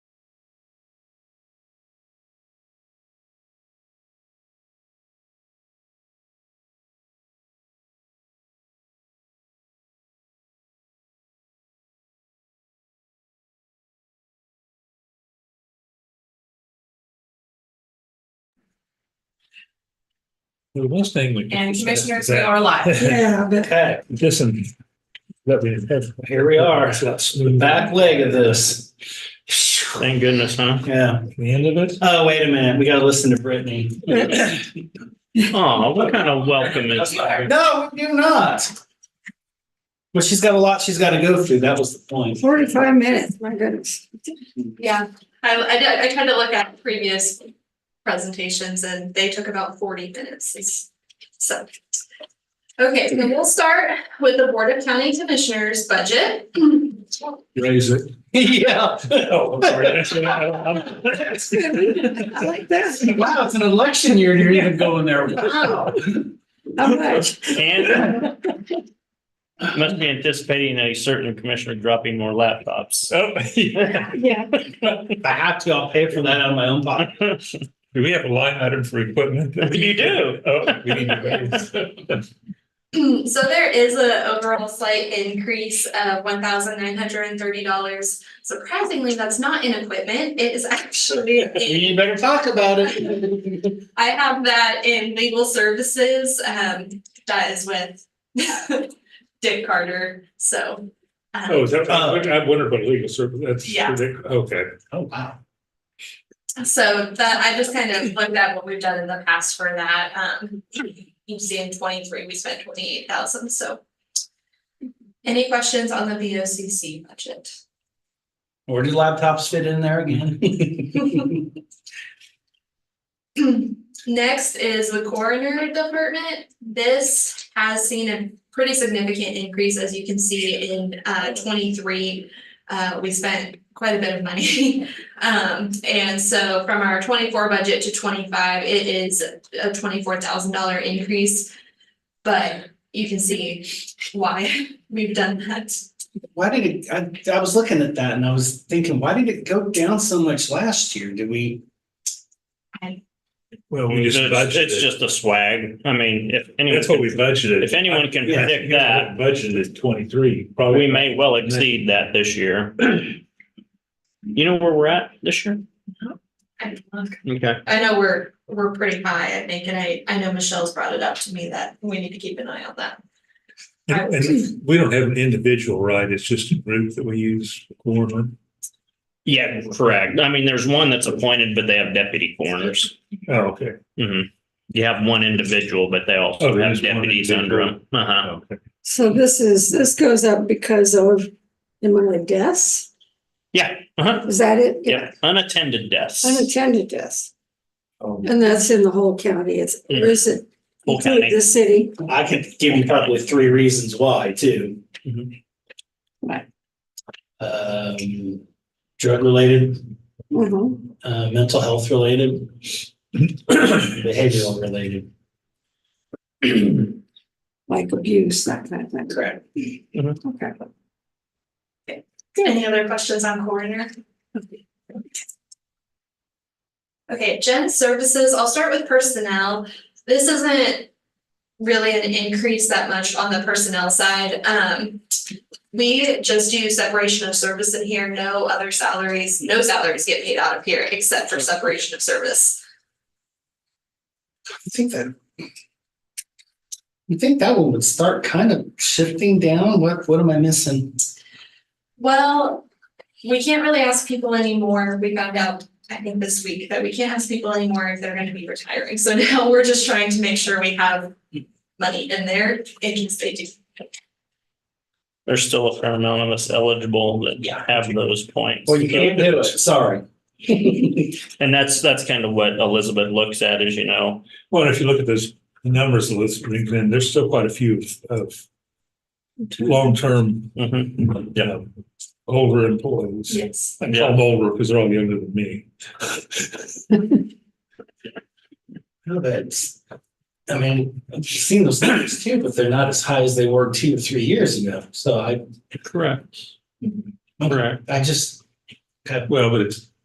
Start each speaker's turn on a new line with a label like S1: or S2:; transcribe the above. S1: We're listening. we-
S2: And commissioners, we are live.
S3: Yeah, but
S4: Okay,
S1: Listen, that we have.
S4: here we are,
S1: That's
S4: the back leg of this.
S5: Thank goodness, huh?
S4: Yeah.
S1: The end of it.
S4: Oh, wait a minute. We gotta listen to Brittany.
S5: Oh, what kind of welcome is that?
S4: No, we do not. But she's got a lot she's gotta go through. That was the point.
S3: forty-five minutes, my goodness.
S2: Yeah, I, I did, I tried to look at previous presentations and they took about forty minutes. It's- So. Okay, so we'll start with the Board of County Commissioners budget.
S1: Raise it.
S4: Yeah.
S1: Oh, I'm sorry. Actually, I don't- I'm-
S3: I like that.
S4: Wow, it's an election year and you're even going there. Wow.
S3: How much?
S5: And must be anticipating a certain commissioner dropping more laptops.
S1: Oh, yeah.
S3: Yeah.
S4: If I have to, I'll pay for that out of my own pocket.
S1: Do we have a line item for equipment? that we-
S5: You do.
S1: Oh, we need to raise.
S2: So there is a overall slight increase of one thousand nine hundred and thirty dollars. Surprisingly, that's not in equipment. It is actually in
S4: You better talk about it.
S2: I have that in legal services, um, that is with Dick Carter, so. um,
S1: Oh, is that,
S5: Uh,
S1: I wonder about legal service. That's.
S2: Yeah.
S1: Okay.
S4: Oh, wow.
S2: So that, I just kind of looked at what we've done in the past for that, um, you see in twenty-three, we spent twenty-eight thousand, so. Any questions on the V O C C budget?
S4: Where do laptops fit in there again?
S2: Next is the coroner department. This has seen a pretty significant increase, as you can see in uh twenty-three. Uh, we spent quite a bit of money. Um, and so from our twenty-four budget to twenty-five, it is a twenty-four thousand dollar increase. But you can see why we've done that.
S4: Why did it, I, I was looking at that and I was thinking, why did it go down so much last year? Did we?
S1: Well, we just
S5: It's
S1: budgeted.
S5: it's just a swag. I mean, if anyone,
S1: That's what we
S5: can-
S1: budgeted.
S5: if anyone can
S4: Yeah.
S5: predict that,
S1: Budgeted twenty-three, probably.
S5: we may well exceed that this year. You know where we're at this year?
S2: I love
S5: Okay.
S2: I know we're, we're pretty high, I think, and I, I know Michelle's brought it up to me that we need to keep an eye on that.
S1: And, and we don't have an individual, right? It's just a group that we use. Gorman.
S5: Yeah, correct. I mean, there's one that's appointed, but they have deputy coroners.
S1: Oh, okay.
S5: hmm You have one individual, but they
S1: Oh,
S5: also
S1: there
S5: have
S1: is one
S5: deputies under them. Uh-huh.
S4: Oh.
S1: Okay.
S3: So this is, this goes up because of, am I a deaths?
S5: Yeah, uh-huh,
S3: Is that it?
S5: yeah, unattended deaths.
S3: Unattended deaths.
S1: Um,
S3: And that's in the whole county. It's, or is it
S5: Full
S3: include
S5: county.
S3: the city?
S4: I could give you probably three reasons why too.
S3: Right.
S4: Um, drug related,
S3: Mhm.
S4: uh, mental health related, behavioral related.
S3: Like abuse, that kind of thing.
S4: Correct.
S3: Okay.
S2: Any other questions on coroner? Okay, Gen Services, I'll start with personnel. This isn't really an increase that much on the personnel side. Um, we just do separation of service in here, no other salaries, no salaries get paid out of here except for separation of service.
S4: You think that? You think that one would start kind of shifting down? What, what am I missing?
S2: Well, we can't really ask people anymore. We found out, I think this week, that we can't ask people anymore if they're gonna be retiring. So now we're just trying to make sure we have money in there in case they do.
S5: There's still a fair amount of us eligible that
S4: Yeah.
S5: have those points.
S4: Well, you can't do it, sorry.
S5: And that's, that's kind of what Elizabeth looks at is, you know,
S1: Well, if you look at those numbers that Liz brings in, there's still quite a few of- of long-term,
S5: mhm,
S1: you know, older employees.
S2: Yes.
S1: I call them older because they're all younger than me.
S4: No, that's, I mean, I've seen those numbers too, but they're not as high as they were two or three years ago. So I,
S5: correct. Correct.
S4: I just,
S1: Well, but it's